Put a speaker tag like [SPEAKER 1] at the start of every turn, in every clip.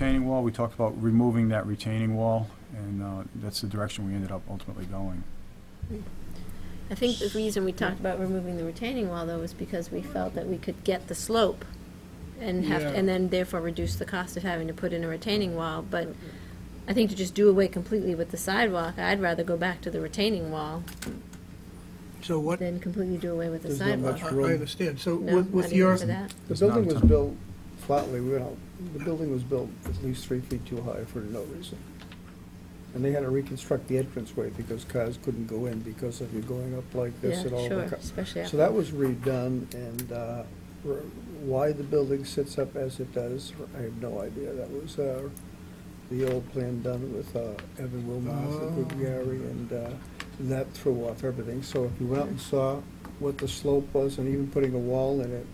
[SPEAKER 1] retaining wall, we talked about removing that retaining wall, and uh, that's the direction we ended up ultimately going.
[SPEAKER 2] I think the reason we talked about removing the retaining wall, though, was because we felt that we could get the slope and have,
[SPEAKER 3] Yeah.
[SPEAKER 2] and then therefore reduce the cost of having to put in a retaining wall, but I think to just do away completely with the sidewalk, I'd rather go back to the retaining wall
[SPEAKER 3] So what, I
[SPEAKER 2] than completely do away with the
[SPEAKER 4] There's not much-
[SPEAKER 2] sidewalk.
[SPEAKER 3] I
[SPEAKER 4] room.
[SPEAKER 3] understand, so
[SPEAKER 2] No,
[SPEAKER 3] with
[SPEAKER 2] not
[SPEAKER 3] with
[SPEAKER 2] even
[SPEAKER 3] your,
[SPEAKER 2] for that.
[SPEAKER 4] The
[SPEAKER 1] It's not
[SPEAKER 4] building
[SPEAKER 1] a
[SPEAKER 4] was
[SPEAKER 1] tunnel.
[SPEAKER 4] built flatly, we don't, the building was built at least three feet too high for no reason. And they had to reconstruct the entranceway because cars couldn't go in because of you going up like this and
[SPEAKER 2] Yeah,
[SPEAKER 4] all
[SPEAKER 2] sure,
[SPEAKER 4] the cars.
[SPEAKER 2] especially.
[SPEAKER 4] So that was redone, and uh, r- why the building sits up as it does, I have no idea. That was uh, the old plan done with uh, Evan Wilmoth and Gugliari, and uh, that threw off everything. So if you went out and saw what the slope was, and even putting a wall in it,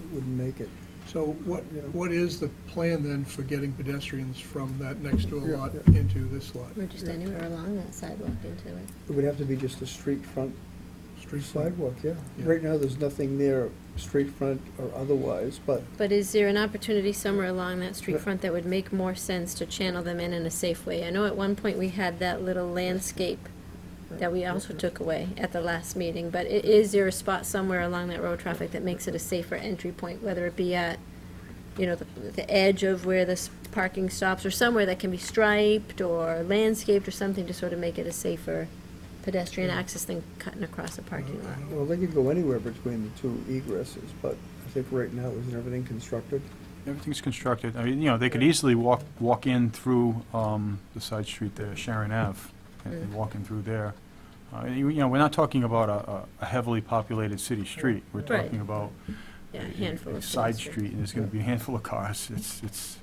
[SPEAKER 4] it wouldn't make it.
[SPEAKER 3] so what,
[SPEAKER 4] Yeah.
[SPEAKER 3] what is the plan then for getting pedestrians from that next door
[SPEAKER 4] Yeah,
[SPEAKER 3] lot
[SPEAKER 4] yeah.
[SPEAKER 3] into this lot?
[SPEAKER 2] Or just anywhere along that sidewalk into it.
[SPEAKER 4] It would have to be just a street front
[SPEAKER 3] Street
[SPEAKER 4] sidewalk, yeah.
[SPEAKER 3] Yeah.
[SPEAKER 4] Right now, there's nothing there, street front or otherwise, but
[SPEAKER 2] But is there an opportunity somewhere along that street front that would make more sense to channel them in in a safe way? I know at one point we had that little landscape that we also took away at the last meeting, but i- is there a spot somewhere along that road traffic that makes it a safer entry point, whether it be at, you know, the, the edge of where this parking stops, or somewhere that can be striped or landscaped or something to sort of make it a safer pedestrian
[SPEAKER 1] Mm-hmm.
[SPEAKER 2] access than cutting across a parking lot?
[SPEAKER 4] Well, they could go anywhere between the two egresses, but I think right now, isn't everything constructed?
[SPEAKER 1] Everything's constructed, I mean, you know, they could easily walk, walk in through um, the side street there, Sharon Ave, and- and walk in through there. Uh, You you know, we're not talking about a- a- a heavily populated city street, we're
[SPEAKER 2] Right.
[SPEAKER 1] talking about
[SPEAKER 2] Yeah,
[SPEAKER 1] a-
[SPEAKER 2] a handful
[SPEAKER 1] a
[SPEAKER 2] of.
[SPEAKER 1] side
[SPEAKER 2] pedestrians.
[SPEAKER 1] street, and there's going to be a handful of cars, it's, it's,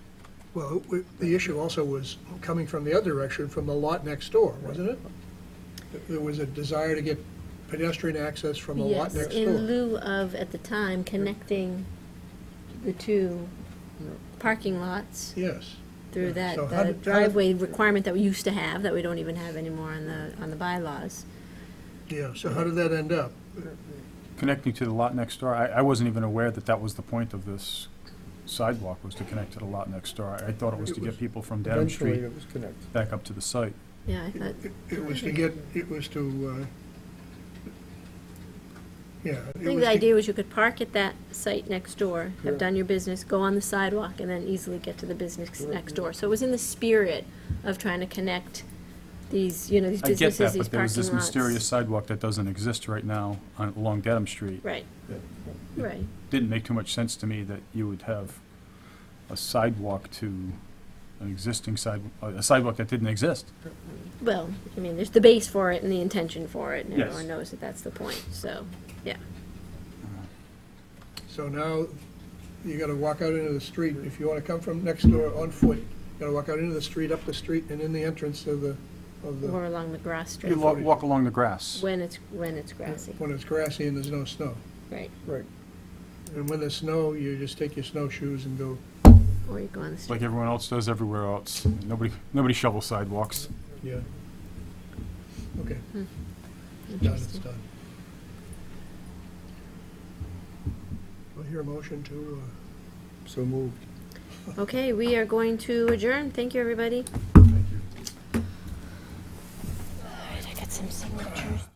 [SPEAKER 3] Well, it- it- the issue also was coming from the other direction, from the lot next door, wasn't it? There was a desire to get pedestrian access from the
[SPEAKER 2] Yes,
[SPEAKER 3] lot next
[SPEAKER 2] in
[SPEAKER 3] door.
[SPEAKER 2] lieu of, at the time, connecting the two parking lots
[SPEAKER 3] Yes.
[SPEAKER 2] through
[SPEAKER 3] Yeah,
[SPEAKER 2] that
[SPEAKER 3] so how
[SPEAKER 2] the
[SPEAKER 3] did- how did-
[SPEAKER 2] driveway requirement that we used to have, that we don't even have anymore on the, on the bylaws.
[SPEAKER 3] Yeah, so how did that end up?
[SPEAKER 2] Uh,
[SPEAKER 1] connecting to the lot next door, I, I wasn't even aware that that was the point of this sidewalk, was to connect to the lot next door. I I thought it was to
[SPEAKER 3] It was-
[SPEAKER 1] get people from Dedham
[SPEAKER 4] Eventually,
[SPEAKER 1] Street
[SPEAKER 4] it was connected.
[SPEAKER 1] back up to the site.
[SPEAKER 2] Yeah, I
[SPEAKER 3] It-
[SPEAKER 2] thought,
[SPEAKER 3] It it was to get, it was to, uh, yeah.
[SPEAKER 2] I think the idea was you could park at that site next door, have
[SPEAKER 4] Correct.
[SPEAKER 2] done your business, go on the sidewalk, and then easily get to the business
[SPEAKER 4] Correct.
[SPEAKER 2] next door. So it was in the spirit of trying to connect these, you know, these
[SPEAKER 1] I get
[SPEAKER 2] businesses,
[SPEAKER 1] that,
[SPEAKER 2] these
[SPEAKER 1] but there was
[SPEAKER 2] parking
[SPEAKER 1] this mysterious
[SPEAKER 2] lots.
[SPEAKER 1] sidewalk that doesn't exist right now on, along Dedham Street.
[SPEAKER 2] Right,
[SPEAKER 1] It
[SPEAKER 2] right.
[SPEAKER 1] Didn't make too much sense to me that you would have a sidewalk to an existing side, a sidewalk that didn't exist.
[SPEAKER 2] Well, I mean, there's the base for it and the intention for it, and
[SPEAKER 1] Yes.
[SPEAKER 2] everyone knows that that's the point, so, yeah.
[SPEAKER 3] So now, you gotta walk out into the street, if you wanna come from next door on foot, you gotta walk out into the street, up the street, and in the entrance of the, of the,
[SPEAKER 2] Or along the grass strip,
[SPEAKER 1] You lo- walk along the grass.
[SPEAKER 2] when it's, when it's grassy,
[SPEAKER 3] when it's grassy and there's no snow.
[SPEAKER 2] right,
[SPEAKER 4] Right.
[SPEAKER 3] And when there's snow, you just take your snowshoes and go,
[SPEAKER 2] or you go on the street.
[SPEAKER 1] like everyone else does everywhere else. Nobody, nobody shovels sidewalks.
[SPEAKER 3] yeah. Okay, done, it's
[SPEAKER 2] Interesting.
[SPEAKER 3] done. Do I hear a motion to, uh,
[SPEAKER 4] So moved.
[SPEAKER 2] Okay, we are going to adjourn, thank you, everybody.
[SPEAKER 3] uh, thank you.
[SPEAKER 2] All right, I got some signatures.